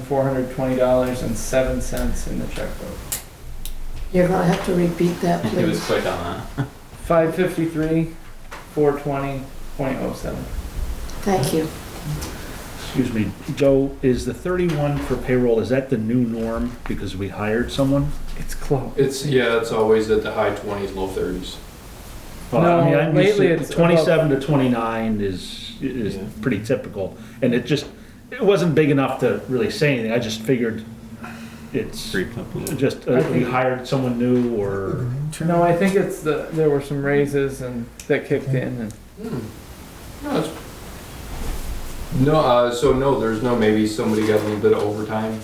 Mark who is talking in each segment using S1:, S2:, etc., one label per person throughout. S1: four hundred twenty dollars and seven cents in the checkbook.
S2: You're gonna have to repeat that,
S3: He was
S2: please.
S3: quick on that.
S1: Five fifty-three, four twenty point oh seven.
S2: Thank you.
S4: Excuse me, Joe, is the 31 for payroll, is that the new norm because we hired someone?
S1: It's close.
S5: It's, yeah, it's always at the high twenties, low thirties.
S4: Well, I mean,
S1: No,
S4: I'm used to-
S1: lately it's
S4: 27 to 29 is, is
S5: Yeah.
S4: pretty typical. And it just, it wasn't big enough to really say anything. I just figured it's
S3: Creeped up a little.
S4: just, uh, we hired someone new or,
S1: No, I think it's the, there were some raises and that kicked in and
S5: No, it's- No, uh, so no, there's no, maybe somebody got a little bit of overtime,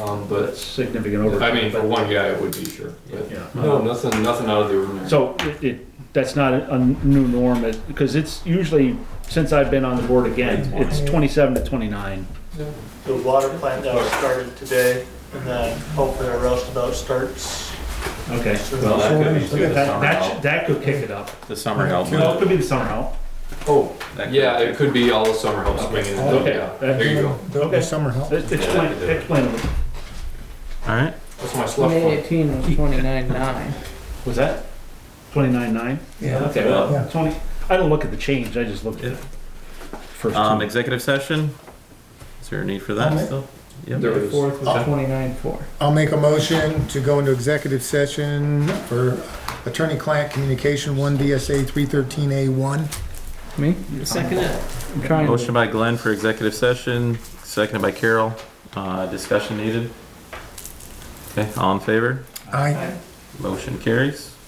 S5: um, but,
S4: but significant
S5: I
S4: overtime.
S5: mean, for
S4: but-
S5: one guy, it would be sure, but,
S4: Yeah.
S5: no, nothing, nothing out of the ordinary.
S4: So it, it, that's not a a new norm, it- because it's usually, since I've been on the board again, it's 27 to 29.
S6: The water plant that was started today, and then hopefully a roustabout starts.
S4: Okay.
S6: soon.
S3: Well, that could be too, the
S4: That,
S3: summer
S4: that,
S3: help.
S4: should- that could kick it up.
S3: The summer help.
S4: Well, it could be the summer help.
S5: Oh,
S3: That could-
S5: yeah, it could be all the summer help swinging,
S4: Okay.
S5: yeah, there you go,
S4: Okay.
S7: The summer help.
S4: It's, it's plain- it's plain.
S3: All right.
S5: that's my slush
S1: twenty
S5: fund.
S1: eighteen was twenty-nine nine.
S4: Was that? Twenty-nine nine?
S7: Yeah.
S4: Okay,
S7: Yeah.
S4: well, twenty, I don't look at the change, I just look at. first
S3: Um,
S4: two.
S3: executive session. Is there a need for
S7: I'll
S3: that
S7: make-
S3: still?
S5: There
S3: Yep.
S5: it is.
S1: Fourth was
S3: Okay.
S1: twenty-nine four.
S7: I'll make a motion to go into executive session for attorney-client communication, one DSA three thirteen A one.
S1: Me?
S3: Second it.
S1: I'm trying to.
S3: Motion by Glenn for executive session, seconded by Carol. Uh, discussion needed. Okay, all in favor?
S7: Aye.
S3: Motion carries.